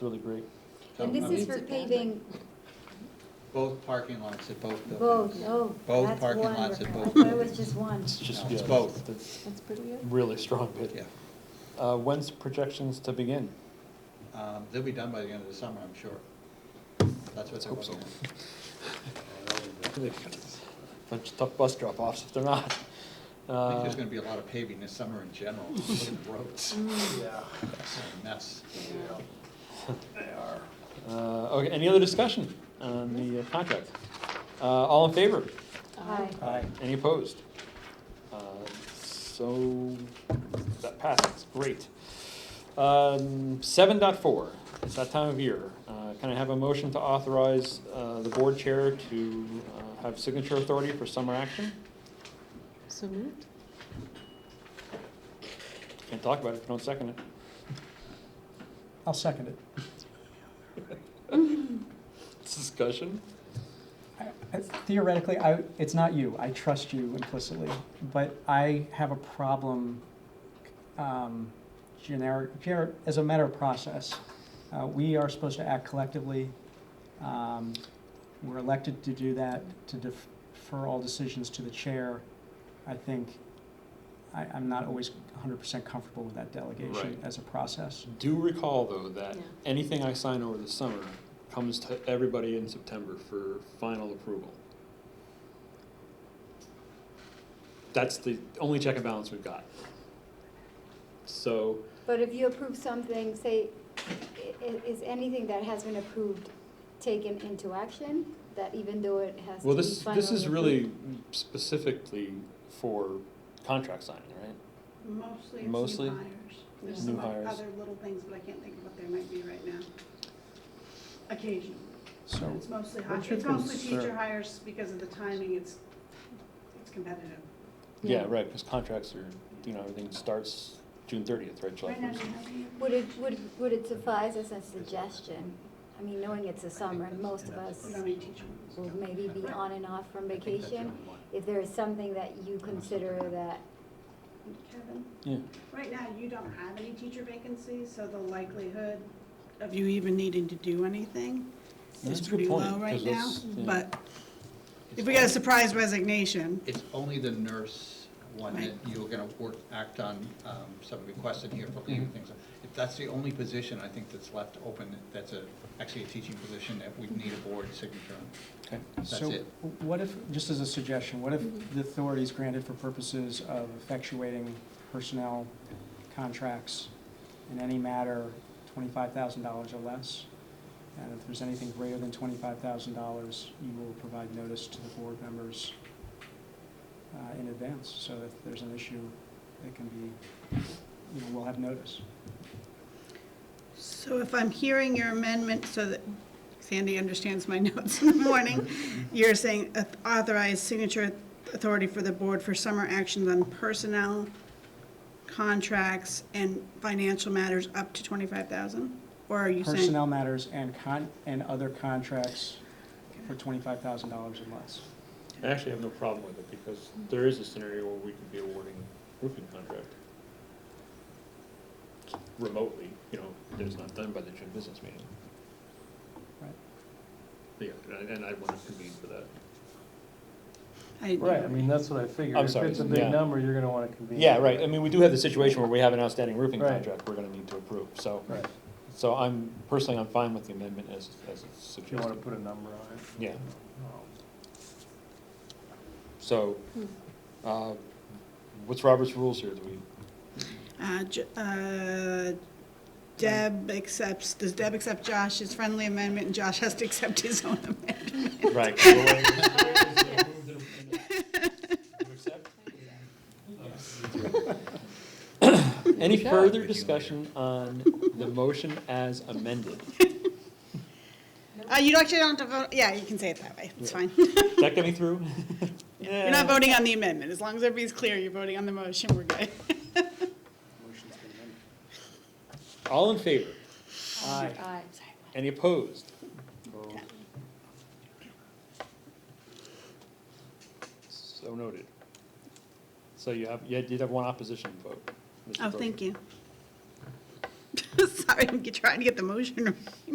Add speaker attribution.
Speaker 1: really great.
Speaker 2: And this
Speaker 3: uh,
Speaker 2: is for paving
Speaker 3: Both parking lots at both
Speaker 2: both,
Speaker 3: buildings.
Speaker 2: oh,
Speaker 3: Both
Speaker 2: that's one,
Speaker 3: parking
Speaker 2: we're- I
Speaker 3: lots at
Speaker 2: thought
Speaker 3: both.
Speaker 2: it was just one.
Speaker 1: It's just,
Speaker 3: No,
Speaker 1: yeah,
Speaker 3: it's both.
Speaker 1: that's
Speaker 4: That's pretty good.
Speaker 1: really strong bid.
Speaker 3: Yeah.
Speaker 1: Uh, when's projections to begin?
Speaker 3: Um, They'll be done by the end of the summer, I'm sure. That's what they're
Speaker 1: Hope so.
Speaker 3: looking at.
Speaker 1: Bunch of tough bus drop-offs if they're not.
Speaker 3: I think
Speaker 1: Uh,
Speaker 3: there's gonna be a lot of paving this summer in general, Look at the roads,
Speaker 2: Mm.
Speaker 5: Yeah.
Speaker 3: it's a mess.
Speaker 1: uh, okay, any other discussion on the uh, contract? Uh, all in favor?
Speaker 2: Hi,
Speaker 5: Aye.
Speaker 1: Any opposed? Uh, So, that passes, great. Um, seven dot four, it's that time of year. Uh, can I have a motion to authorize, uh, the board chair to, uh, have signature authority for summer action?
Speaker 4: So moved?
Speaker 1: Can't talk about it if you don't second it.
Speaker 5: I'll second it.
Speaker 1: Discussion?
Speaker 5: I- Theoretically, I, it's not you, I trust you implicitly, but I have a problem, um, generic, gener- as a matter of process. Uh, we are supposed to act collectively, um, we're elected to do that, to defer all decisions to the chair. I think, I, I'm not always hundred percent comfortable with that delegation
Speaker 1: Right.
Speaker 5: as a process.
Speaker 1: Do recall, though, that
Speaker 4: Yeah.
Speaker 1: anything I sign over the summer comes to everybody in September for final approval. That's the only check and balance we've got. So,
Speaker 2: but if you approve something, say, i- i- is anything that has been approved taken into action? That even though it has to
Speaker 1: well,
Speaker 2: be
Speaker 1: this, this is
Speaker 2: finally
Speaker 1: really specifically for contract signing, right?
Speaker 6: Mostly it's
Speaker 1: Mostly
Speaker 6: new hires. There's
Speaker 2: Yeah.
Speaker 6: some
Speaker 1: New hires.
Speaker 6: other little things, but I can't think of what they might be right now. Occasionally.
Speaker 5: So,
Speaker 6: It's mostly, hi-
Speaker 1: What's your
Speaker 6: it's mostly
Speaker 1: concern?
Speaker 6: teacher hires because of the timing, it's, it's competitive.
Speaker 1: Yeah, right, because contracts are, you know, everything starts June thirtieth, right, July
Speaker 6: Right now, do
Speaker 1: first.
Speaker 6: you have any?
Speaker 2: Would it, would, would it suffice as a suggestion? I mean, knowing it's the summer, and most of us
Speaker 6: You don't need teacher ones.
Speaker 2: will maybe be on and off from vacation. If there is something that you consider that,
Speaker 6: Kevin,
Speaker 1: Yeah,
Speaker 6: right now, you don't have any teacher vacancies, so the likelihood of you even needing to do anything
Speaker 1: That's
Speaker 6: is
Speaker 1: a good
Speaker 6: pretty
Speaker 1: point,
Speaker 6: low right
Speaker 1: 'cause
Speaker 6: now.
Speaker 1: that's- yeah.
Speaker 6: But if we got a surprise resignation,
Speaker 3: It's only the nurse one that
Speaker 6: Right.
Speaker 3: you're gonna work, act on, um, some requests in here for leaving
Speaker 6: Mm-hmm.
Speaker 3: things. If that's the only position I think that's left open, that's a, actually a teaching position that we need a board signature on.
Speaker 1: okay.
Speaker 3: That's
Speaker 5: So
Speaker 3: it.
Speaker 5: what if, just as a suggestion, what if the authority is granted for purposes of effectuating personnel contracts in any matter twenty-five thousand dollars or less? And if there's anything greater than twenty-five thousand dollars, you will provide notice to the board members uh, in advance, so if there's an issue, it can be, you know, we'll have notice.
Speaker 6: So if I'm hearing your amendment, so that Sandy understands my notes in the morning, you're saying authorize signature authority for the board for summer actions on personnel, contracts, and financial matters up to twenty-five thousand? Or are you saying?
Speaker 5: Personnel matters and con, and other contracts for twenty-five thousand dollars or less.
Speaker 1: I actually have no problem with it, because there is a scenario where we could be awarding roofing contract remotely, you know, that it's not done by the June business meeting.
Speaker 5: Right.
Speaker 1: Yeah, and- and I want to convene for that.
Speaker 6: I-
Speaker 7: Right, I mean, that's what I figured.
Speaker 1: I'm sorry,
Speaker 7: If it's a
Speaker 1: yeah.
Speaker 7: big number, you're gonna wanna convene.
Speaker 1: Yeah, right, I mean, we do have the situation where we have an outstanding roofing
Speaker 7: Right.
Speaker 1: contract we're gonna need to approve, so,
Speaker 7: Right,
Speaker 1: so I'm, personally, I'm fine with the amendment as, as it's
Speaker 7: if you wanna
Speaker 1: suggested.
Speaker 7: put a number on it.
Speaker 1: Yeah,
Speaker 7: Um,
Speaker 1: so, uh, what's Robert's rules here, do we,
Speaker 6: Uh, J- uh, Deb accepts, does Deb accept Josh's friendly amendment, and Josh has to accept his own amendment?
Speaker 1: right? Any further discussion on the motion as amended?
Speaker 6: Uh, you actually don't have to vote, yeah, you can say it that way, it's
Speaker 1: Yeah.
Speaker 6: fine.
Speaker 1: Is that coming through?
Speaker 6: You're not voting on the amendment. As long as everybody's clear, you're voting on the motion, we're good.
Speaker 5: Motion's been amended.
Speaker 1: All in favor?
Speaker 5: Aye.
Speaker 4: Aye.
Speaker 1: Any opposed? So noted. So you have, you did have one opposition vote. Mr.
Speaker 6: Oh,
Speaker 1: Brogan.
Speaker 6: thank you. Sorry, I'm trying to get the motion right.